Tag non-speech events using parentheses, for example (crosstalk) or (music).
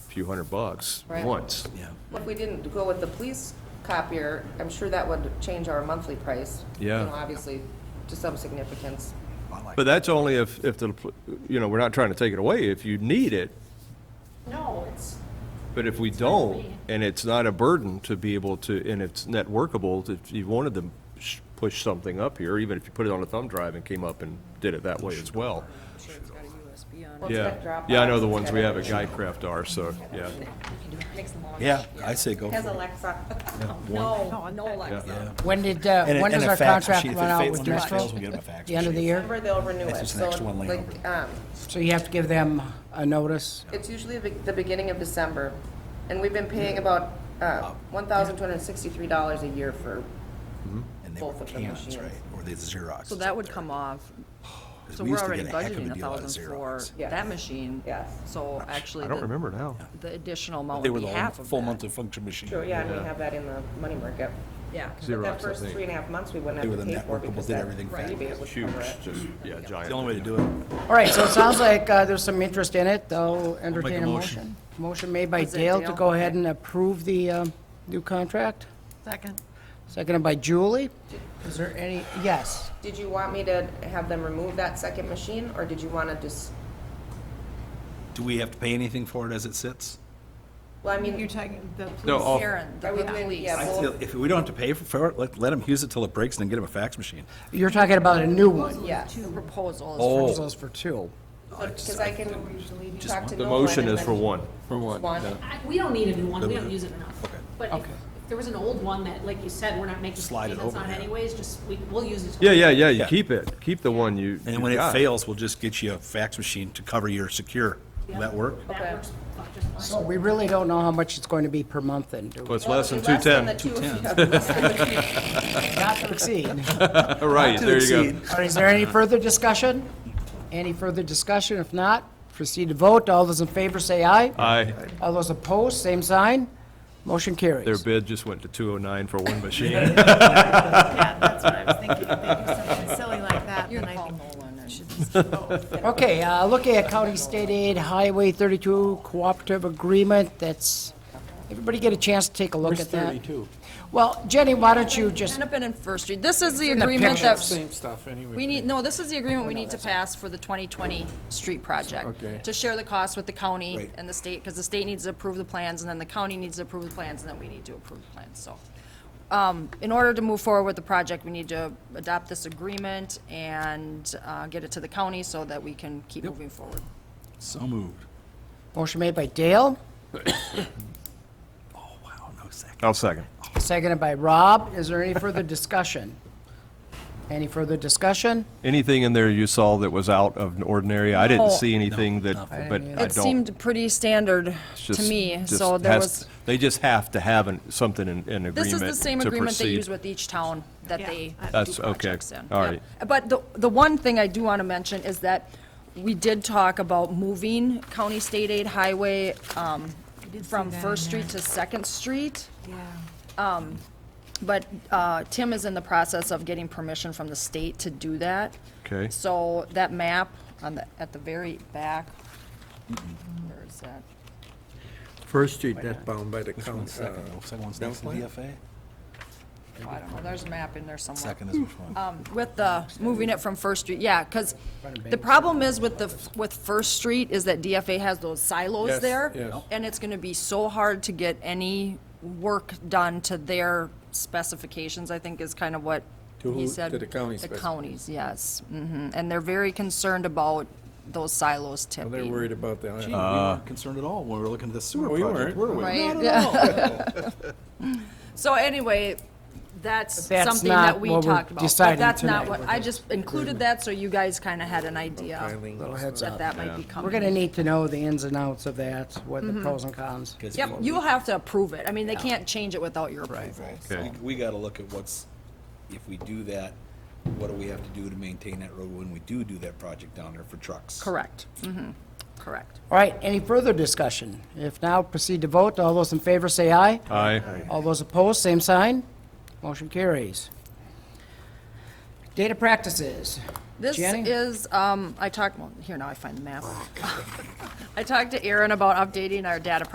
few hundred bucks Right. once. Yeah. If we didn't go with the police copier, I'm sure that would change our monthly price. you Yeah. know, Obviously, to some significance. I like But that's only if, if the, pl- you know, we're not trying to take it away, if you need it. No, it's, But if we don't, and it's not a burden to be able to, and it's net workable, if you wanted to sh- push something up here, even if you put it on a thumb drive and came up and did it that way as well. Sure, it's got a USB on it. Well, it's got Yeah, Dropbox, yeah, I know the it's ones got we have at everything. GuideCraft are, so, yeah. Makes them all- Yeah, I say go for Has it. Alexa. No, no Alexa. When did, uh, And a- when and does a our fax contract machine. If run it out fails- with when yours fails, Metro? we'll get 'em a fax The end of the machine. year? Remember, they'll renew it. That's just the So, next one laying like, over. um, So you have to give them a notice? It's usually the the beginning of December, and we've been paying about uh, $1,263 a year for, And they were Both of them cans, machines. right? Or the Xerox. So that would come off. So we we're used to already get a heck of a budgeting a deal out of thousand for Xerox. Yes. that machine. Yes. So actually. I don't the- remember now. The additional amount They would were be the half whole of full that. month of function machine. sure, yeah, and we have that in the money market. Yeah. But Xerox, I that first think. three and a half months, we wouldn't They were have to the pay for networkable, because did that everything rebate would Huge, cover it. just, yeah, giant. It's the only way to do it. All right, so it sounds like uh, there's some interest in it. They'll entertain a motion. motion. Motion made by Was it Dale to Dale? go ahead and approve the um, new contract, Second. seconded by Julie. Is there any, yes? Did you want me to have them remove that second machine, or did you want to just, Do we have to pay anything for it as it sits? well, I mean. You're talking, the No, police, all- Karen, the Are we doing- police. yeah, I Well- feel If we don't have to pay for- for it, let, let them use it till it breaks and then get them a fax machine. You're talking about a new one? Yeah, The proposal is Oh. Those for two. because I can talk to The Nolan motion and is then- for one. For what? One. Yeah. I- we don't need a new one, we don't use it enough. Okay. But if- if there was an old one that, like you said, we're not making Slide it payments over, on yeah. anyways, just, we, we'll use it. till- Yeah, yeah, yeah, you Yeah. keep it, keep the one you. And you when it got. fails, we'll just get you a fax machine to cover your secure. Will that work? Okay. That works fuck, just fine. So we really don't know how much it's going to be per month then, do Well, we? it's less than Less than the 210. two of you. Less (laughs) than the two. Not to exceed. (laughs) All right, there you go. exceed. All right, is there any further discussion? Any further discussion? If not, proceed to vote. All those in favor say aye. Aye. All those opposed, same sign. Motion Their carries. bid just went to 209 for one machine. yeah, that's what I was thinking, if they do something silly like that, then I think Okay, uh, looking at County State Aid Highway 32 Cooperative Agreement, that's, everybody get a chance to take a look Where's at that? 32? Well, Jenny, why don't you just, Kind of been in First Street. This is the the agreement picture. that. Same stuff anyway. We need, no, this is the agreement we need to pass for the 2020 street project. Okay. To share the cost with the county Right. and the state, because the state needs to approve the plans, and then the county needs to approve the plans, and then we need to approve the plans, so. um, In order to move forward with the project, we need to adopt this agreement and uh, get it to the county so that we can keep moving forward. So moved. motion made by Dale, Oh, wow, no second. (laughs) I'll second. seconded by Rob. Is there any further discussion? Any further discussion? Anything in there you saw that was out of ordinary? I didn't No. see anything that, but I Oh. It don't. seemed pretty standard it's to just- me, just so there has- was, They just have to have an- something in, in agreement to this proceed. is the same agreement they use with each town that Yeah. they That's, okay, projects in. all Yep. right. But the, the one thing I do want to mention is that we did talk about moving County State Aid Highway um, did see from that in First there. Street to Second Street, Um, yeah. but uh, Tim is in the process of getting permission from the state to do that. Okay. So that map on the, at the very back, where is that? First Street, that's bound by the county. uh, One's second. The Second one's next to Dunklin? DFA? Oh, I don't know, there's a map in there somewhere. Um, Second is which one? with the, moving it from First Street, yeah, because the problem is with the, with First Street is that DFA has those silos Yes, there. yes. And it's gonna be so hard to get any work done to their specifications, I think is kind of what To he who- said. to the county The specific- counties, yes, hmm and they're very concerned about those silos Well, They're tipping. worried about that. Gee, we weren't concerned at all when Uh, we were looking at this sewer We project, weren't. were we? Right? Yeah. So anyway, that's But that's something not that we what we're talked about. deciding But that's not tonight. what, I just included that so you guys kind of had an idea that that might be coming. We're going to need to know the ins and outs of that, what the pros and cons. Yep, you'll have to approve it. I mean, they can't change it without your approval. Right, so we- we gotta look at what's, if we do that, what do we have to do to maintain that road when we do do that project down there for trucks? Correct. Mm-hmm, correct. All right, any further discussion? If now, proceed to vote. All those in favor say aye. Aye. All those opposed, same sign. Motion carries. Data practices. This Jenny? is, (laughs) um, I talked, well, here now I find the map. I talked to Aaron about updating our data